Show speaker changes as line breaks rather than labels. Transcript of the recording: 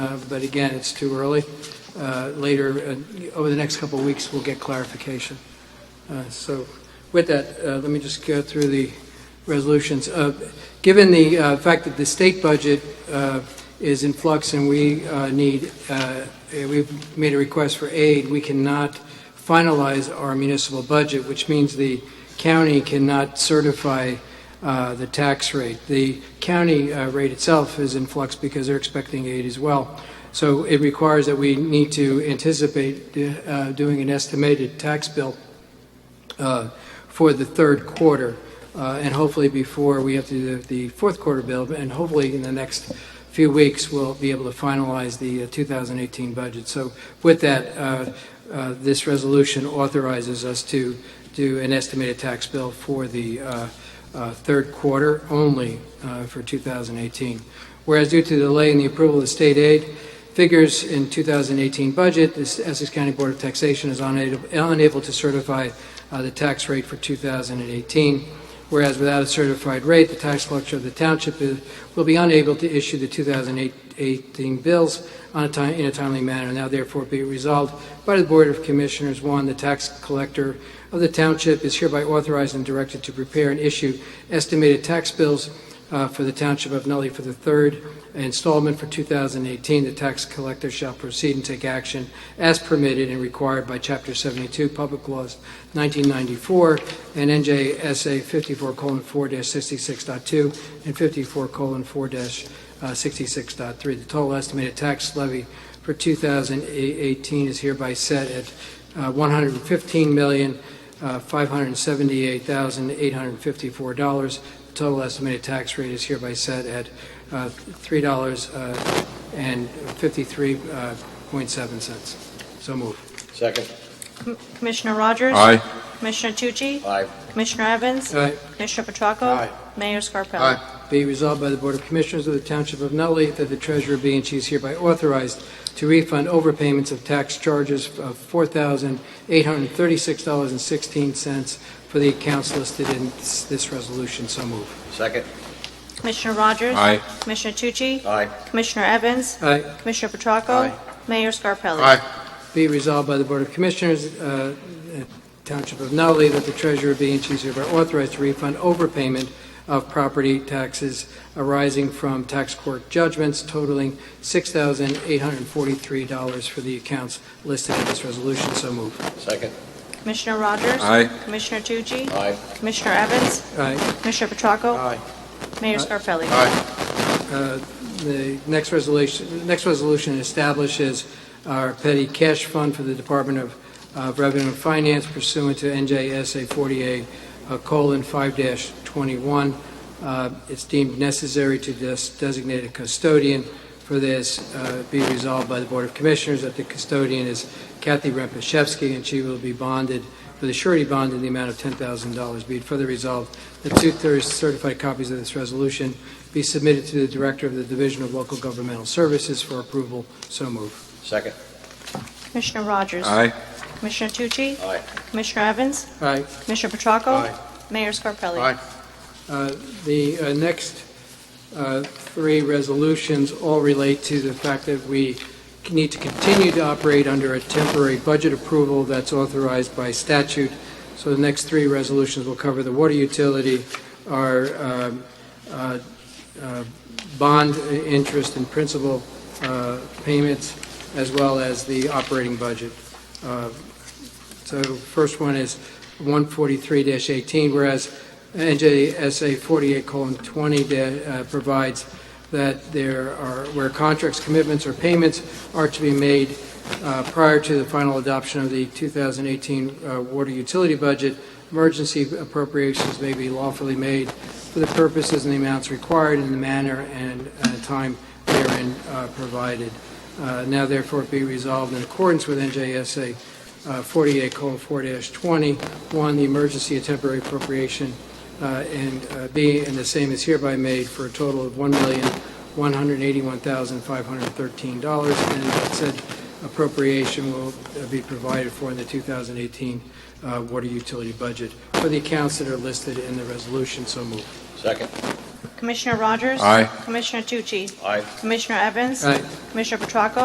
Uh, but again, it's too early. Uh, Later, uh, over the next couple of weeks, we'll get clarification. Uh, So with that, uh, let me just go through the resolutions. Uh, Given the uh, fact that the state budget uh, is in flux and we uh, need, uh, we've made a request for aid, we cannot finalize our municipal budget, which means the county cannot certify uh, the tax rate. The county uh, rate itself is in flux because they're expecting aid as well. So it requires that we need to anticipate uh, doing an estimated tax bill uh, for the third quarter, uh, and hopefully before we have to do the fourth quarter bill, and hopefully in the next few weeks, we'll be able to finalize the uh, 2018 budget. So with that, uh, uh, this resolution authorizes us to do an estimated tax bill for the uh, uh, third quarter only uh, for 2018. Whereas due to the delay in the approval of the state aid, figures in 2018 budget, the Essex County Board of Taxation is unable unable to certify uh, the tax rate for 2018, whereas without a certified rate, the tax collector of the township is- will be unable to issue the 2018 bills on a time, in a timely manner. Now therefore be resolved by the Board of Commissioners, one, the tax collector of the township is hereby authorized and directed to prepare and issue estimated tax bills uh, for the township of Nutley for the third installment for 2018, the tax collector shall proceed and take action as permitted and required by Chapter 72, Public Laws 1994, and NJSA 54:4-66.2 and uh, 54:4-66.3. The total estimated tax levy for 2018 is hereby set at uh, $115,578,854. The total estimated tax rate is hereby set at uh, uh, $3.53.7. So move.
Second.
Com- Commissioner Rogers?
Aye.
Commissioner Tucci?
Aye.
Commissioner Evans?
Aye.
Commissioner Petracco?
Aye.
Mayor Scarpelli?
Aye.
Be resolved by the Board of Commissioners of the Township of Nutley that the treasurer be and she is hereby authorized to refund overpayments of tax charges of $4,836.16 for the accounts listed in this this resolution. So move.
Second.
Commissioner Rogers?
Aye.
Commissioner Tucci?
Aye.
Commissioner Evans?
Aye.
Commissioner Petracco?
Aye.
Mayor Scarpelli?
Be resolved by the Board of Commissioners, uh, Township of Nutley, that the treasurer be and she is hereby authorized to refund overpayment of property taxes arising from tax court judgments totaling $6,843 for the accounts listed in this resolution. So move.
Second.
Commissioner Rogers?
Aye.
Commissioner Tucci?
Aye.
Commissioner Evans?
Aye.
Commissioner Petracco?
Aye.
Mayor Scarpelli?
Uh, The next resolution, next resolution establishes our petty cash fund for the Department of uh, Revenue and Finance pursuant to NJSA 48, uh, colon, 5-21. Uh, It's deemed necessary to des- designate a custodian for this, uh, be resolved by the Board of Commissioners that the custodian is Kathy Rempachevsky, and she will be bonded with a surety bond in the amount of $10,000. Be it further resolved that two-thirds certified copies of this resolution be submitted to the Director of the Division of Local Governmental Services for approval. So move.
Second.
Commissioner Rogers?
Aye.
Commissioner Tucci?
Aye.
Commissioner Evans?
All right,
Commissioner Petracco?
Aye.
Mayor Scarpelli?
Aye.
uh, the uh, next uh, three resolutions all relate to the fact that we need to continue to operate under a temporary budget approval that's authorized by statute. So the next three resolutions will cover the water utility, our um, uh, uh, bond interest and principal uh, payments, as well as the operating budget. Uh, So first one is 143-18, whereas NJSA 48:20 uh, provides that there are, where contracts, commitments, or payments are to be made uh, prior to the final adoption of the 2018 uh, water utility budget, emergency appropriations may be lawfully made for the purposes and the amounts required in the manner and uh, time therein uh, provided. Uh, Now therefore be resolved in accordance with NJSA uh, 48:4-20, one, the emergency and temporary appropriation, uh, and uh, B, and the same is hereby made for a total of $1,181,513, and that said appropriation will uh, be provided for in the 2018 uh, water utility budget for the accounts that are listed in the resolution, so moved.
Second.
Commissioner Rogers?
Aye.
Commissioner Tucci?
Aye.
Commissioner Evans?
Aye.
Commissioner Petracco?